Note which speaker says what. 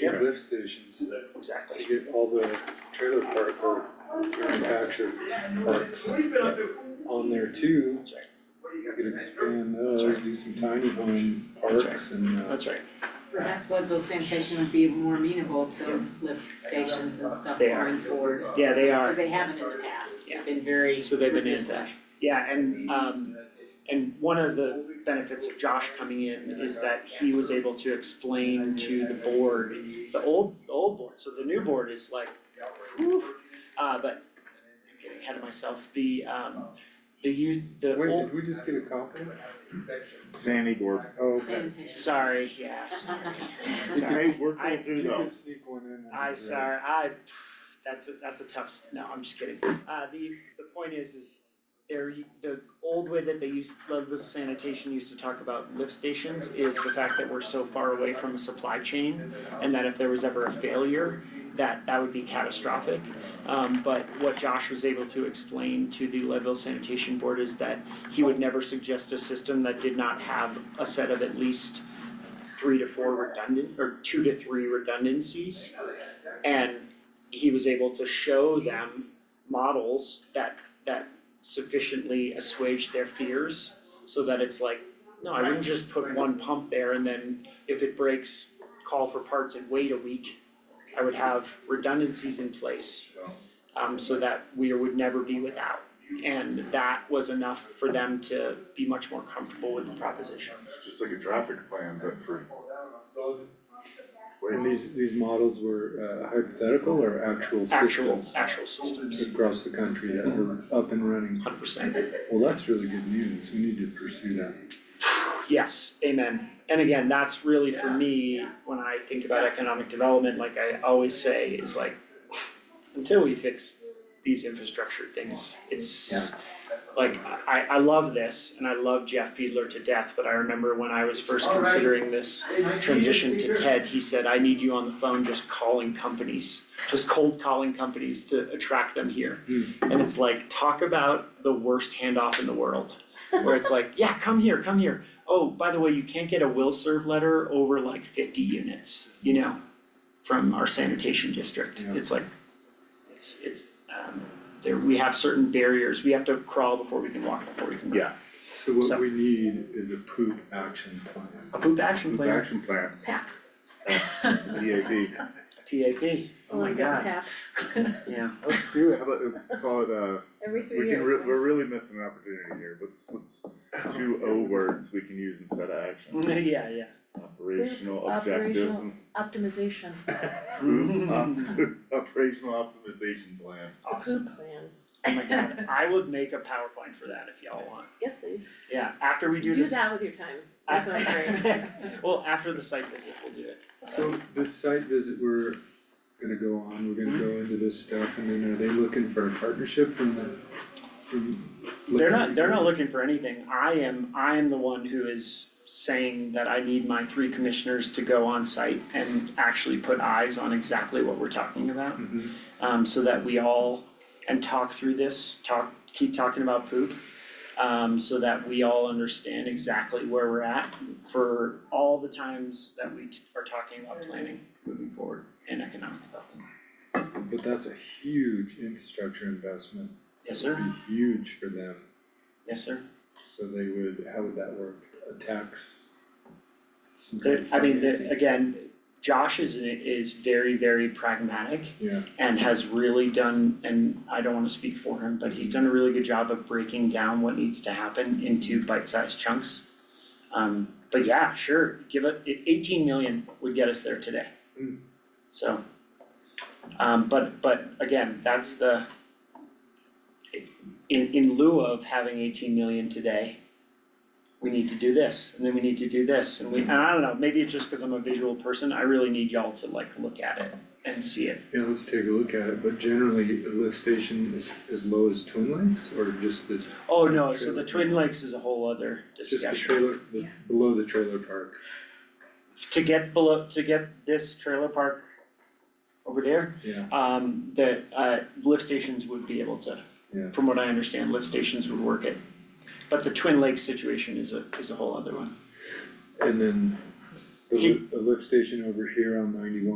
Speaker 1: Yeah.
Speaker 2: lift stations to
Speaker 1: Exactly.
Speaker 2: get all the trailer park or manufactured parks on there too.
Speaker 1: That's right,
Speaker 2: You could expand
Speaker 1: That's
Speaker 2: those,
Speaker 1: right.
Speaker 2: do some tiny home
Speaker 1: That's
Speaker 2: parks and uh,
Speaker 1: that's right.
Speaker 3: Perhaps Leadville station would be more amenable to lift stations and stuff
Speaker 4: They are.
Speaker 3: going forward,
Speaker 4: Yeah, they
Speaker 3: because
Speaker 4: are,
Speaker 3: they haven't in the past,
Speaker 4: Yeah.
Speaker 3: they've been very
Speaker 1: So they've been in
Speaker 3: resistant.
Speaker 1: that.
Speaker 4: yeah, and um, and one of the benefits of Josh coming in is that he was able to explain to the board, the old, the old board, so the new board is like, whew, uh, but I'm getting ahead of myself, the um, the you, the
Speaker 2: wait,
Speaker 4: old,
Speaker 2: did we just get a compliment?
Speaker 5: Sandy Gordon.
Speaker 2: Oh, okay.
Speaker 3: Sanitation.
Speaker 4: sorry, yes,
Speaker 2: We could-
Speaker 4: sorry,
Speaker 5: Hey, we're
Speaker 4: I-
Speaker 5: going through
Speaker 2: You could
Speaker 5: those.
Speaker 2: sneak one in.
Speaker 4: I, sorry, I, that's a, that's a tough, s- no, I'm just kidding. Uh, the, the point is, is there, the old way that they used, Ludlow sanitation used to talk about lift stations is the fact that we're so far away from a supply chain and that if there was ever a failure, that, that would be catastrophic. Um, but what Josh was able to explain to the Leadville Sanitation Board is that he would never suggest a system that did not have a set of at least three to four redundant, or two to three redundancies. And he was able to show them models that, that sufficiently assuage their fears so that it's like, no, I wouldn't just put one pump there and then if it breaks, call for parts and wait a week. I would have redundancies in place, um, so that we would never be without. And that was enough for them to be much more comfortable with the proposition.
Speaker 5: It's just like a traffic plan, but for.
Speaker 2: And
Speaker 5: Wait,
Speaker 2: these, these models were uh, hypothetical or actual
Speaker 4: Actual,
Speaker 2: systems
Speaker 4: actual systems,
Speaker 2: across the country that were up and running?
Speaker 4: hundred percent.
Speaker 2: Well, that's really good news, we need to pursue that.
Speaker 4: Yes, amen. And again, that's really for me, when I think about economic development, like I always say, is like, until we fix these infrastructure things, it's, like, I, I love this, and I love Jeff Fiedler to death, but I remember when I was first considering this transition to TED, he said, I need you on the phone just calling companies, just cold calling companies to attract them here.
Speaker 2: Hmm.
Speaker 4: And it's like, talk about the worst handoff in the world, where it's like, yeah, come here, come here, oh, by the way, you can't get a will serve letter over like fifty units, you know, from our sanitation district.
Speaker 2: Yeah.
Speaker 4: It's like, it's, it's, um, there, we have certain barriers, we have to crawl before we can walk, before we can. run.
Speaker 5: Yeah.
Speaker 2: So what
Speaker 4: So-
Speaker 2: we need is a poop action plan.
Speaker 4: A poop action
Speaker 5: Group
Speaker 4: plan,
Speaker 5: action plan,
Speaker 3: PAP.
Speaker 5: EAP.
Speaker 4: PAP, oh
Speaker 6: Um,
Speaker 4: my god, yeah.
Speaker 5: Let's do it. How about, let's call it, uh,
Speaker 6: Every
Speaker 5: we
Speaker 6: three
Speaker 5: can, re-
Speaker 6: years.
Speaker 5: we're really missing an opportunity here. What's, what's two O words we can use instead of action?
Speaker 4: Yeah, yeah.
Speaker 5: Operational objective.
Speaker 6: Optimization,
Speaker 5: Group opt- Operational optimization plan.
Speaker 4: Awesome,
Speaker 6: food plan,
Speaker 4: oh my god, I would make a PowerPoint for that if y'all want,
Speaker 6: yes, please,
Speaker 4: yeah, after we do
Speaker 6: do
Speaker 4: this.
Speaker 6: that with your time, that sounds great.
Speaker 4: I- Well, after the site visit, we'll do it.
Speaker 2: So this site visit we're gonna go on, we're gonna go into this stuff, and then are they looking for a partnership from the, from?
Speaker 4: They're not, they're not looking for anything, I am, I am the one who is saying that I need my three commissioners to go on site and actually put eyes on exactly what we're talking about.
Speaker 2: Mhm.
Speaker 4: Um, so that we all, and talk through this, talk, keep talking about poop. Um, so that we all understand exactly where we're at for all the times that we t- are talking about planning moving forward in economic development.
Speaker 2: Mm-hmm. But that's a huge infrastructure investment,
Speaker 4: Yes,
Speaker 2: it'd
Speaker 4: sir,
Speaker 2: be huge for them,
Speaker 4: yes, sir.
Speaker 2: so they would, how would that work, a tax? some kind
Speaker 4: There,
Speaker 2: of
Speaker 4: I mean, there,
Speaker 2: financing?
Speaker 4: again, Josh is, is very, very pragmatic
Speaker 2: Yeah,
Speaker 4: and has really done, and I don't wanna speak for him, but he's done a really good job of breaking down what needs to happen into bite-sized chunks. Um, but yeah, sure, give it, i- eighteen million would get us there today.
Speaker 2: Mm.
Speaker 4: So, um, but, but again, that's the, in, in lieu of having eighteen million today, we need to do this, and then we need to do this, and we, and I don't know, maybe it's just cause I'm a visual person, I really need y'all to like look at it and see it.
Speaker 2: yeah, let's take a look at it, but generally, a lift station is as low as Twin Lakes, or just the,
Speaker 4: Oh, no, so
Speaker 2: Trailer
Speaker 4: the Twin Lakes is a whole other
Speaker 2: just the
Speaker 4: discussion.
Speaker 2: trailer, the, below the trailer park?
Speaker 4: To get below, to get this trailer park over there,
Speaker 2: Yeah,
Speaker 4: um, that, uh, lift stations would be able to.
Speaker 2: Yeah.
Speaker 4: From what I understand, lift stations would work it. But the Twin Lakes situation is a, is a whole other one.
Speaker 2: and then the
Speaker 4: Keep-
Speaker 2: lift, the lift station over here on ninety-one